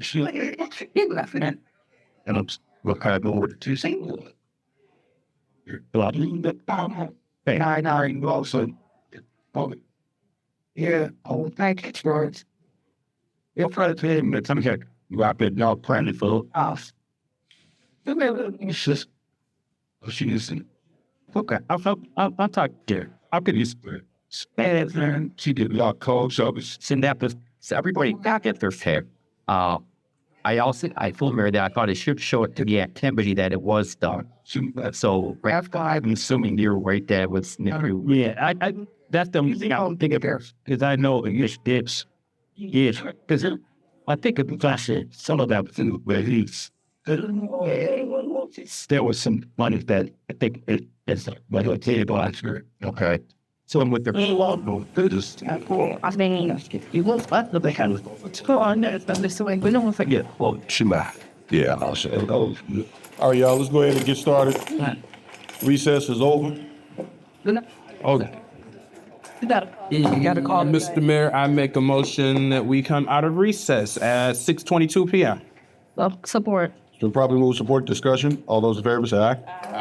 passionately laughing at. And I'm look I go over to single. Loving the power. And I now involved in public. Yeah, I would like it for it. If I tell him that I'm here, rapid now planning for us. The little issues. Oh, She is in. Okay, I felt I I talked there. I could use Spanish and she did a lot of calls. So I was send that to so everybody back at their fair. Uh, I also I told Mary that I thought it should show it to the activity that it was uh, done. soon left. So That's why I'm I'm assuming you're right there with Snickers. Yeah, I, Mm-hmm. I that's the only thing I don't think about because I know English dips. Yes, because I think of classic some of that was in but he's. I don't know why anyone wants this. there was some money that I think it, it's like a table answer. Okay. So I'm with their They love those business. I mean, you look at the hand. It's cool. I know, but dus this way, we don't want to forget. Well, Shema. Yeah, I'll say. it. those. All right, y'all, let's go ahead and get started. Recess is over. Okay. You gotta call Mr. Mayor, I make a motion that we come out of recess at six twenty-two PM. Well, support. So probably move support discussion. All those in favor say aye.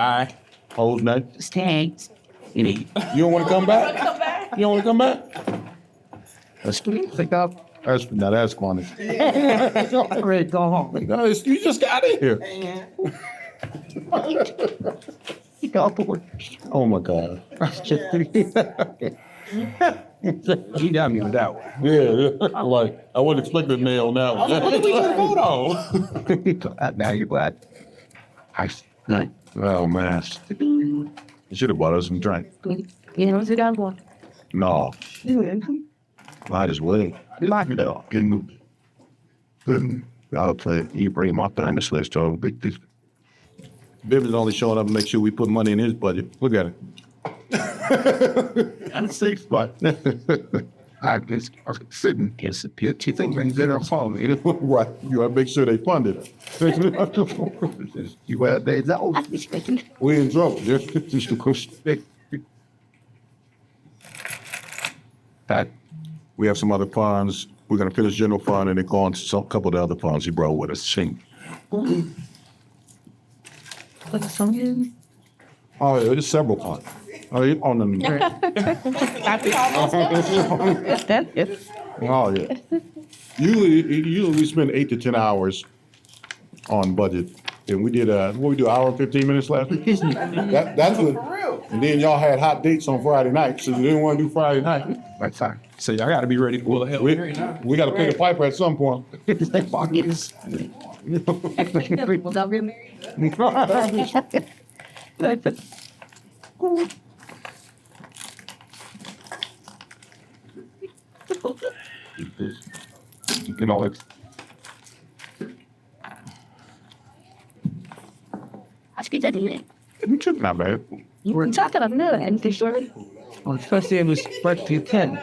Aye. Opposed, nay. Stay. You don't want to come back? You don't want to come back? Pick up. That's, now that's funny. Ready to go home. No, it's- you just got in here. Pick up the word. Oh, my God. He got me with that one. Yeah, yeah. like, I wasn't expecting nay on that What one. did we get a vote on? Now you're glad. I, like, Oh, man. You should have bought us some drink. You know, we got one. No, might as well. like it all. Good move. Good. I'll play Ibrahim up behind this list. Oh, big, big. Bivens only showing up to make sure we put money in his budget. Look at it. and safe, but I just I sitting here, so you think things that are falling. Right, you gotta make sure they funded it. You were there, that Ah, was We in trouble. yeah. just a question. That We have some other funds. We're gonna finish general fund and then go on to some, couple of the other funds he brought with us. Sing. Oh, yeah, there's several funds. Oh, you on the, That is. oh, yeah. Usually, usually we spend eight to ten hours on budget. And we did, uh, what we do, hour and fifteen minutes last week? That, that's what, and then y'all had hot dates on Friday night, so you didn't wanna do Friday night. my time. So y'all gotta be ready to pull the hell. We, we gotta pay the piper at some point. You know, it's you took my man. We're talking about nothing. And they sort of- Especially in respect to ten.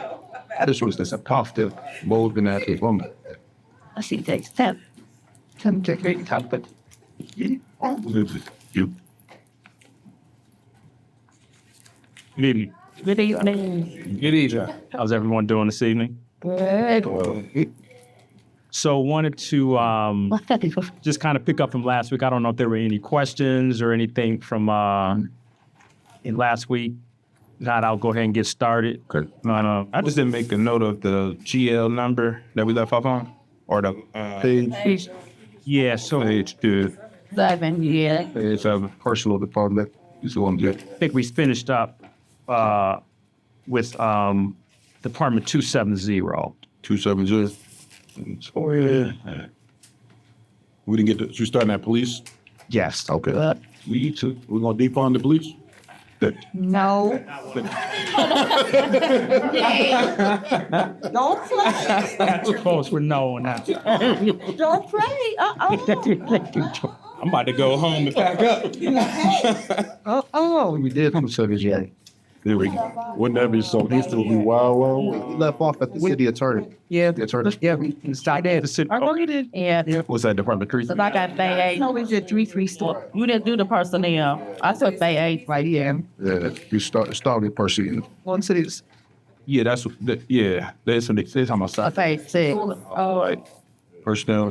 This was this a positive, bold and active woman. I see takes ten. Ten to great company. You. Good What are you doing? Good How's everyone doing this evening? Good. So wanted to um, What's that? It's- just kind of pick up from last week. I don't know if there were any questions or anything from uh, in last week. Not, I'll go ahead and get started. uh, Okay. I don't I just didn't make a note of the GL number that we left off on, or the, uh, Page, it's- yeah. So I page two, Seven, yeah. page of personal department. It's going good. think we finished up uh, with um, Department two seven zero. two seven zero. Oh, yeah. We didn't get to, you starting at police? Yes. Okay. We took We're gonna defund the police? No. Don't play. That's close. We're no on that. Don't play. Uh-oh. I'm about to go home and pack up. Oh, oh, we did from Soviet Union. There we go. Wouldn't that be so, he's still be wild, wild? Left off at the city attorney. Yeah, That's right. Yeah, Oh. we can start there. The city- I know you did. Yeah. What's that, Department three? So like I say, hey, No, we did three, three, four. you didn't do the personnel. I took say eight. Right, yeah. Yeah, you start, started pursuing. One city's Yeah, that's, what- yeah, there's some, there's how much. I say six. Personnel